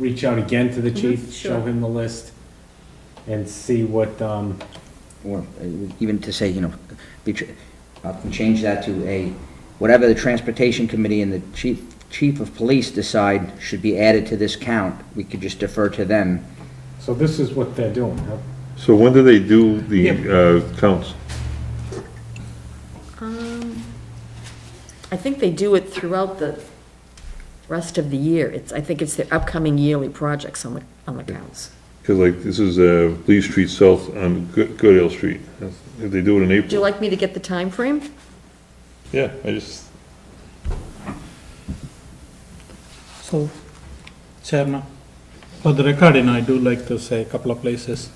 reach out again to the chief, Mhm, show sure. him the list, and see what, um, or uh, even to say, you know, be tr- uh, change that to a, whatever the Transportation Committee and the Chief, Chief of Police decide should be added to this count, we could just defer to them. so this is what they're doing, huh? So when do they do Yeah. the uh, counts? Um, I think they do it throughout the rest of the year. It's, I think it's their upcoming yearly projects on the, on the counts. Because like, this is uh, Lee Street South on Good- Goodale Street. That's- If they do it in Would you April, like me to get the time frame? yeah, I just, So, Chairman, for the recording, I do like to say a couple of places.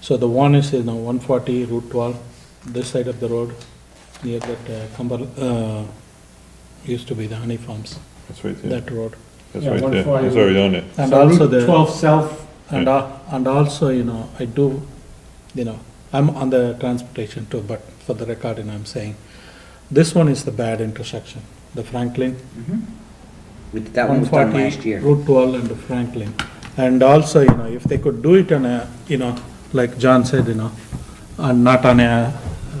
So the one is, you know, 140 Route 12, this side of the road, near that uh, Cumber, uh, used to be the honey farms, that's right there. that road. That's Yeah, right there. 140. It's already on there. And So also Route the. Twelve South, And, al- and also, you know, I do, you know, I'm on the transportation too, but for the recording, I'm saying, this one is the bad intersection, the Franklin. We- That one was done 140, last year. Route 12 and Franklin. And also, you know, if they could do it on a, you know, like John said, you know, and not on a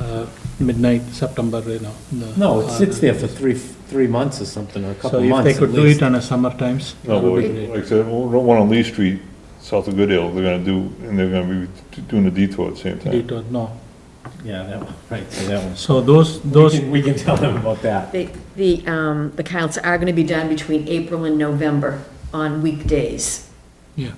uh, midnight September, you know. the- no, it sits uh, there for three, three months or something, or a couple So of if they months at could do it least. on a summer times, No, that but would be like great. like I said, one one on Lee Street, south of Goodale, they're gonna do, and they're gonna be doing the detour at the same time. Detour, no. Yeah, that one, right, so that one. So those, We those, can, we can tell them about that. The, the, um, the counts are gonna be done between April and November on weekdays. yeah.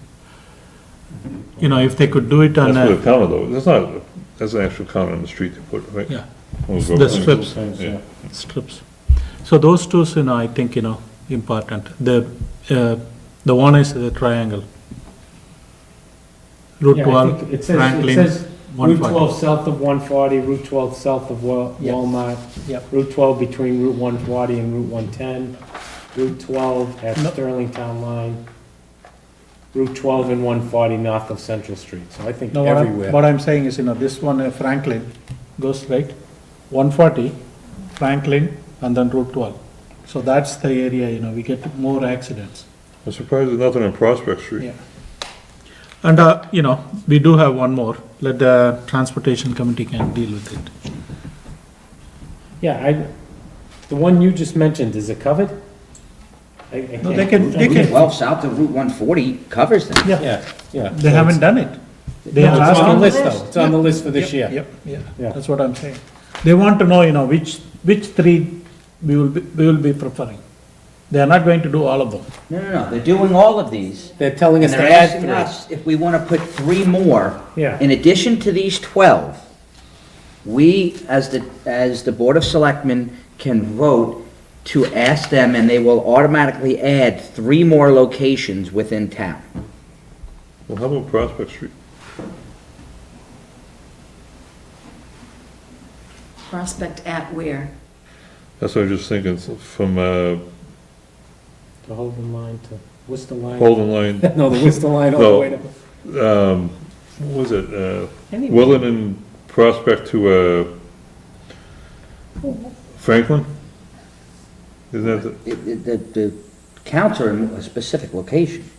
You know, if they could do it on That's for a, the counter though, that's not, that's an actual counter on the street they put, right? yeah, On the government. strips, Yeah. strips. So those two, you know, I think, you know, important. The, uh, the one is the triangle. Route Yeah, I think 12, It says, it Franklin, says Route 140. twelve south of one forty, Route twelve south of Wa- Yeah. Walmart, Yep. Route twelve between Route one forty and Route one ten, Route twelve at No. Sterling Town Line, Route twelve and one forty north of Central Street, so I think No, what I'm, everywhere. what I'm saying is, you know, this one uh, Franklin goes right, 140 Franklin and then Route 12. So that's the area, you know, we get more accidents. I'm surprised there's nothing on Prospect Street. Yeah. And, uh, you know, we do have one more, let the transportation committee can deal with it. Yeah, I, the one you just mentioned, is it covered? I- I No, they can't- can, they Route can, 12 south of Route 140 covers them. yeah, Yeah, yeah. they haven't done it. They No, have it's asked on the them- list though, it's on the list for Yep, this year. Yep, yeah, Yeah. that's what I'm saying. They want to know, you know, which, which three we will, be we will be preferring. They are not going to do all of them. No, no, no, they're doing all of these. They're telling us And to they're add asking three. us if we want to put three more. Yeah. In addition to these 12, we, as the, as the Board of Selectmen, can vote to ask them, and they will automatically add three more locations within town. Well, how about Prospect Street? Prospect at where? That's what I was just thinking, so from uh, To hold the line to, what's the line? Holden Line, No, the Worcester line all the No. way to. um, what was it, uh, Anyway. Willen and Prospect to uh, Franklin? Isn't that, the- It- it- The, the counts are in a specific location.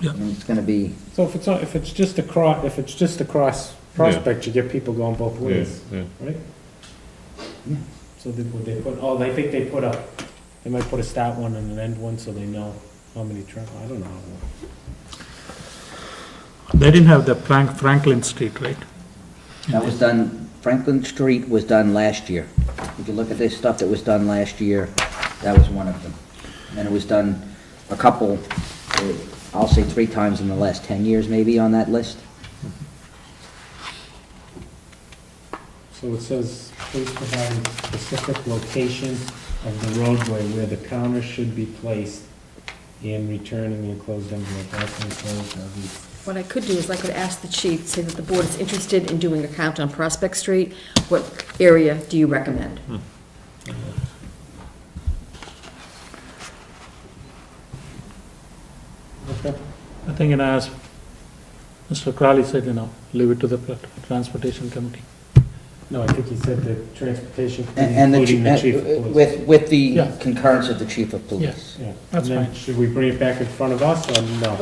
Yeah. And it's gonna be, So if it's, not- if it's just across, if it's just across Prospect, you get people going both yeah, ways, yeah. right? So they, would they put, oh, they think they put a, they might put a start one and an end one, so they know how many travel, I don't know. They didn't have the Frank, Franklin Street, right? that was done, Franklin Street was done last year. If you look at this stuff that was done last year, that was one of them. And it was done a couple, eh, I'll say three times in the last 10 years maybe on that list. So it says, please provide a specific location of the roadway where the counter should be placed and return in the enclosed envelope, that's enclosed, that'll be What I could do is I could ask the chief, say that the board is interested in doing a count on Prospect Street. What area do you recommend? I think, and as Mr. Crowley said, you know, leave it to the pla- transportation committee. No, I think he said the transportation committee, And and the, including chi- the chief of uh, police. with, with the Yeah. concurrence of the chief of police. Yes. Yeah. That's And then fine. Should we bring it back in front of us or no?